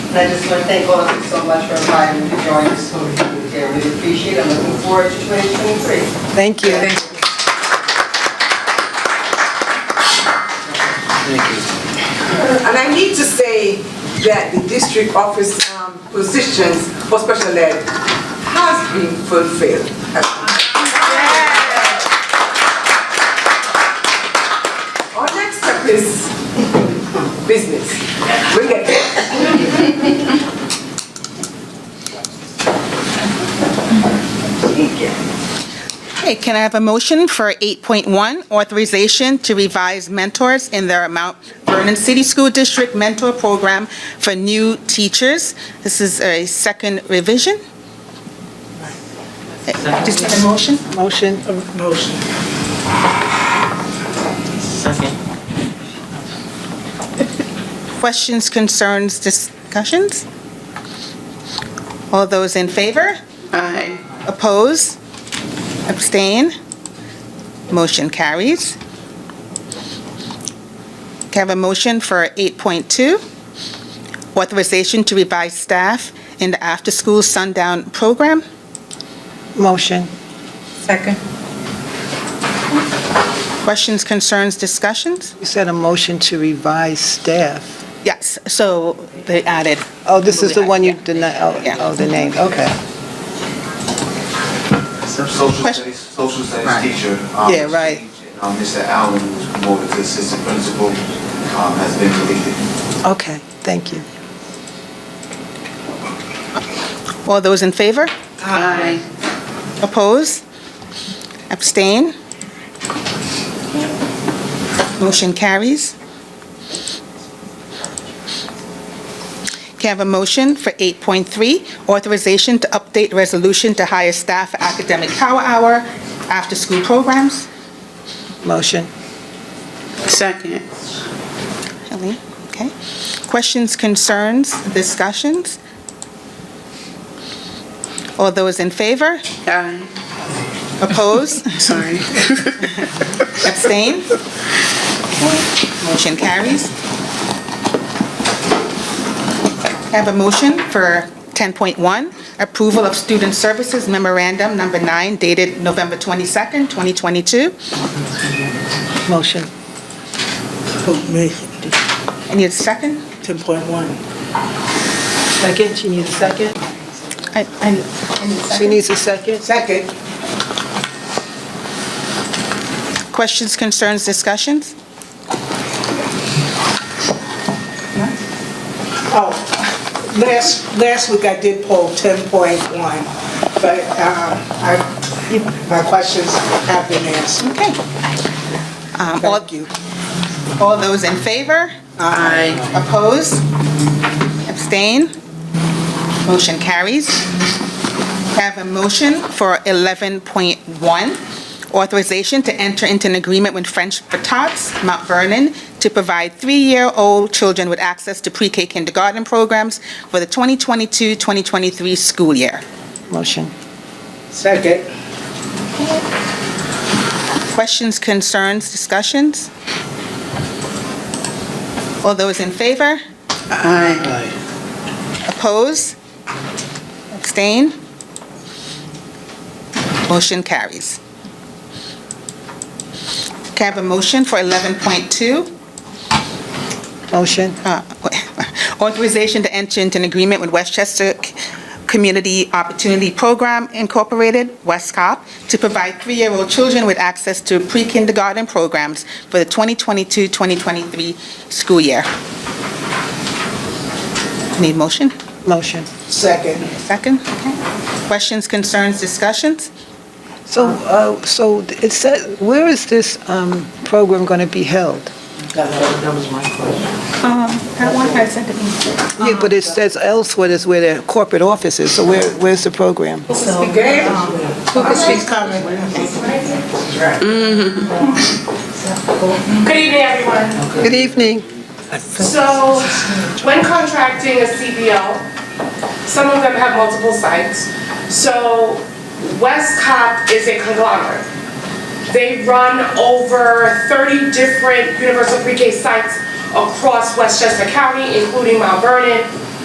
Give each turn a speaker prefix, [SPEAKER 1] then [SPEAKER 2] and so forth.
[SPEAKER 1] And I just want to thank all of you so much for inviting me to join the school here. We appreciate it. I'm looking forward to 2023.
[SPEAKER 2] Thank you.
[SPEAKER 3] And I need to say that the district office um, positions for special ed has been fulfilled. Our next step is business. We'll get there.
[SPEAKER 2] Okay, can I have a motion for 8.1, authorization to revise mentors in their Mount Vernon City School District Mentor Program for new teachers? This is a second revision. Uh, Just need a motion?
[SPEAKER 4] Motion? uh, Motion.
[SPEAKER 5] Second.
[SPEAKER 2] Questions, concerns, discussions? All those in favor?
[SPEAKER 4] Aye.
[SPEAKER 2] Oppose? Abstain? Motion carries. Can I have a motion for 8.2? Authorization to revise staff in the after-school sundown program?
[SPEAKER 4] Motion.
[SPEAKER 5] Second.
[SPEAKER 2] Questions, concerns, discussions?
[SPEAKER 4] You said a motion to revise staff.
[SPEAKER 2] Yes, so they added.
[SPEAKER 4] Oh, this is the one you
[SPEAKER 2] Yeah.
[SPEAKER 4] denied, oh,
[SPEAKER 2] Yeah.
[SPEAKER 4] oh, the name, okay.
[SPEAKER 6] Social
[SPEAKER 2] Question-
[SPEAKER 6] studies, social studies teacher. um,
[SPEAKER 4] Yeah, right.
[SPEAKER 6] Um, Mr. Allen, who's promoted to assistant principal, um, has been deleted.
[SPEAKER 4] Okay, thank you.
[SPEAKER 2] All those in favor?
[SPEAKER 4] Aye.
[SPEAKER 2] Oppose? Abstain? Motion carries. Can I have a motion for 8.3, authorization to update resolution to hire staff for academic power hour after-school programs?
[SPEAKER 4] Motion.
[SPEAKER 7] Second.
[SPEAKER 2] Helene, okay. Questions, concerns, discussions? All those in favor?
[SPEAKER 7] Aye.
[SPEAKER 4] Uh.
[SPEAKER 2] Oppose?
[SPEAKER 7] Sorry.
[SPEAKER 2] Abstain? Motion carries. I have a motion for 10.1, approval of student services memorandum number nine dated November 22nd, 2022.
[SPEAKER 4] Motion.
[SPEAKER 8] Oh,
[SPEAKER 2] I need a second.
[SPEAKER 4] 10.1. Second, she needs a second?
[SPEAKER 2] I- I- I need a
[SPEAKER 4] She
[SPEAKER 2] second.
[SPEAKER 4] needs a second? Second.
[SPEAKER 2] Questions, concerns, discussions?
[SPEAKER 8] Oh, last, last week I did poll 10.1, but um, I, my questions have been answered.
[SPEAKER 2] Okay. Um, all-
[SPEAKER 8] Thank you.
[SPEAKER 2] All those in favor?
[SPEAKER 7] Aye.
[SPEAKER 2] Oppose? Abstain? Motion carries. Have a motion for 11.1, authorization to enter into an agreement with French for Tots, Mount Vernon, to provide three-year-old children with access to pre-K kindergarten programs for the 2022-2023 school year.
[SPEAKER 4] Motion.
[SPEAKER 8] Second.
[SPEAKER 2] Questions, concerns, discussions? All those in favor?
[SPEAKER 7] Aye.
[SPEAKER 2] Oppose? Abstain? Motion carries. Can I have a motion for 11.2?
[SPEAKER 4] Motion.
[SPEAKER 2] Uh, Authorization to enter into an agreement with Westchester C- Community Opportunity Program Incorporated, WestCOP, to provide three-year-old children with access to pre-kindergarten programs for the 2022-2023 school year. Need motion?
[SPEAKER 4] Motion.
[SPEAKER 8] Second.
[SPEAKER 2] Second, okay. Questions, concerns, discussions?
[SPEAKER 4] So, uh, so it said, where is this um, program going to be held?
[SPEAKER 5] That was my question.
[SPEAKER 2] Um, That one I sent to me.
[SPEAKER 4] Yeah, but it says elsewhere is where their corporate office is, so where, where's the program?
[SPEAKER 9] Mm-hmm. Good evening, everyone.
[SPEAKER 4] Good evening.
[SPEAKER 9] So, when contracting a CBO, some of them have multiple sites. So, West Cop is a conglomerate. They run over 30 different universal pre-K sites across Westchester County, including Mount Vernon,